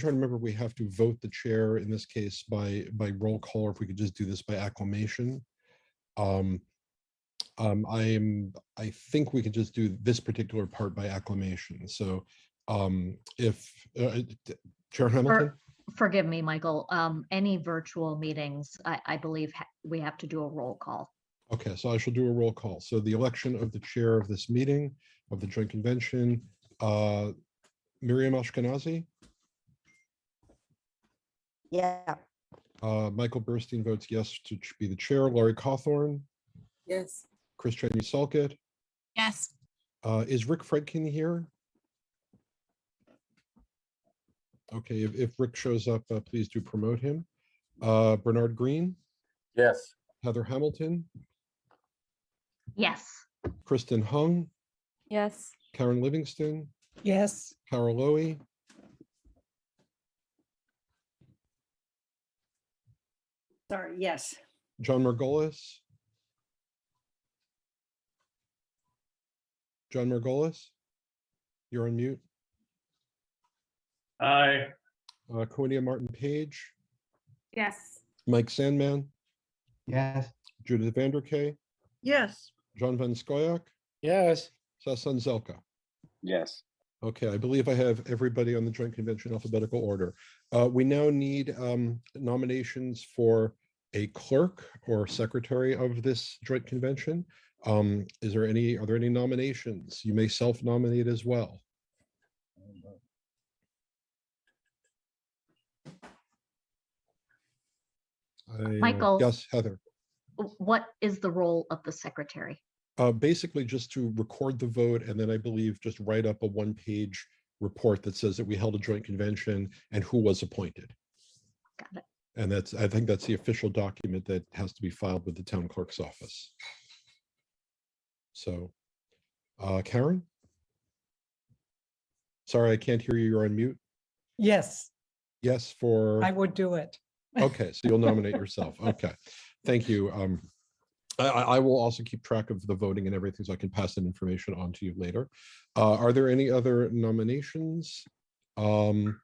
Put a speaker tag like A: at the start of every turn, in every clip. A: trying to remember, we have to vote the chair in this case by, by roll call, or if we could just do this by acclamation. Um, um, I'm, I think we could just do this particular part by acclamation. So, um, if, uh, Chair Hamilton?
B: Forgive me, Michael, um, any virtual meetings, I, I believe ha- we have to do a roll call.
A: Okay, so I shall do a roll call. So the election of the chair of this meeting of the joint convention, uh, Miriam Ashkenazi,
C: Yeah,
A: uh, Michael Burstein votes yes to ch- be the chair, Laurie Cawthorn,
D: Yes.
A: Chris Chaney Salkett.
E: Yes.
A: Uh, is Rick Fredkin here? Okay, if, if Rick shows up, uh, please do promote him. Uh, Bernard Green,
F: Yes.
A: Heather Hamilton,
B: Yes,
A: Kristen Hung,
D: Yes.
A: Karen Livingston,
D: Yes.
A: Carol Lowy.
G: Sorry, yes.
A: John Margolis? John Margolis? You're on mute.
F: Aye.
A: Uh, Quinia Martin Page,
E: Yes.
A: Mike Sandman,
H: Yes.
A: Judith Vanderkay,
G: Yes.
A: John Van Scoyac,
F: Yes.
A: Sasan Zelka.
F: Yes.
A: Okay, I believe I have everybody on the joint convention alphabetical order. Uh, we now need um, nominations for a clerk or secretary of this joint convention. Um, is there any, are there any nominations? You may self-nominate as well. I, uh,
B: Michael.
A: Yes, Heather.
B: W- what is the role of the secretary?
A: Uh, basically just to record the vote and then I believe just write up a one-page report that says that we held a joint convention and who was appointed.
B: Got it.
A: And that's, I think that's the official document that has to be filed with the town clerk's office. So, uh, Karen? Sorry, I can't hear you. You're on mute.
D: Yes,
A: Yes, for.
D: I would do it.
A: Okay, so you'll nominate yourself. Okay, thank you. Um, I, I I will also keep track of the voting and everything, so I can pass that information on to you later. Uh, are there any other nominations? Um,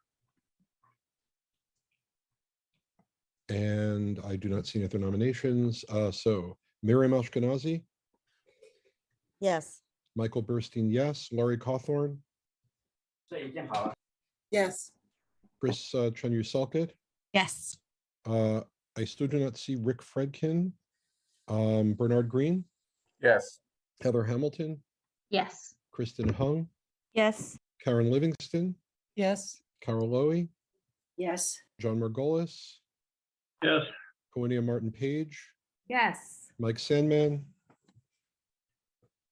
A: and I do not see any other nominations. Uh, so Miriam Ashkenazi,
C: yes.
A: Michael Burstein, yes. Laurie Cawthorn,
C: Yes.
A: Chris uh, Chanyu Salkett.
E: Yes.
A: Uh, I still do not see Rick Fredkin, um, Bernard Green.
F: Yes.
A: Heather Hamilton,
B: Yes,
A: Kristen Hung,
C: Yes.
A: Karen Livingston,
D: Yes.
A: Carol Lowy,
G: Yes.
A: John Margolis,
F: Yes.
A: Quinia Martin Page,
E: Yes.
A: Mike Sandman,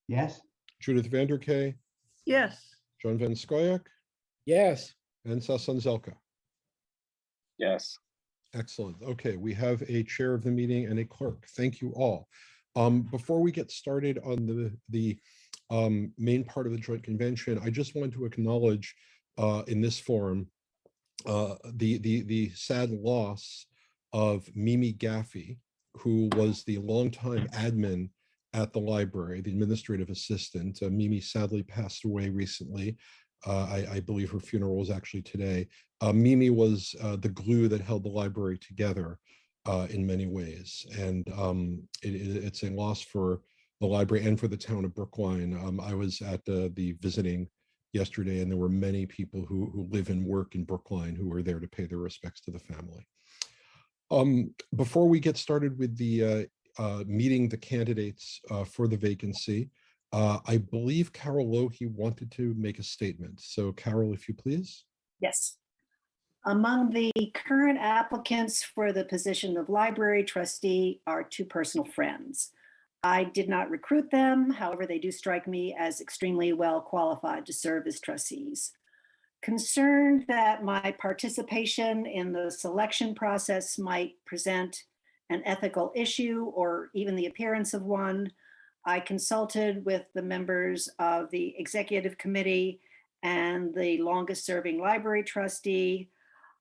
H: Yes.
A: Judith Vanderkay,
G: Yes.
A: John Van Scoyac,
F: Yes.
A: and Sasan Zelka.
F: Yes.
A: Excellent. Okay, we have a chair of the meeting and a clerk. Thank you all. Um, before we get started on the, the um, main part of the joint convention, I just want to acknowledge uh, in this forum uh, the, the, the sad loss of Mimi Gaffey, who was the longtime admin at the library, the administrative assistant. Uh, Mimi sadly passed away recently. Uh, I, I believe her funeral was actually today uh, Mimi was uh, the glue that held the library together uh, in many ways. And um, it, it- it's a loss for the library and for the town of Brookline. Um, I was at uh, the visiting yesterday, and there were many people who, who live and work in Brookline who were there to pay their respects to the family. Um, before we get started with the uh, uh, meeting the candidates uh, for the vacancy, uh, I believe Carol Lohe wanted to make a statement. So, Carol, if you please.
G: Yes. Among the current applicants for the position of library trustee are two personal friends. I did not recruit them, however, they do strike me as extremely well qualified to serve as trustees. Concerned that my participation in the selection process might present an ethical issue or even the appearance of one, I consulted with the members of the executive committee and the longest serving library trustee.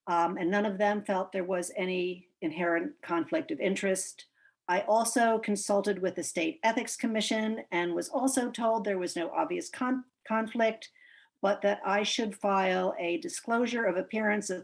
G: um, and none of them felt there was any inherent conflict of interest. I also consulted with the State Ethics Commission and was also told there was no obvious con- conflict, but that I should file a disclosure of appearance of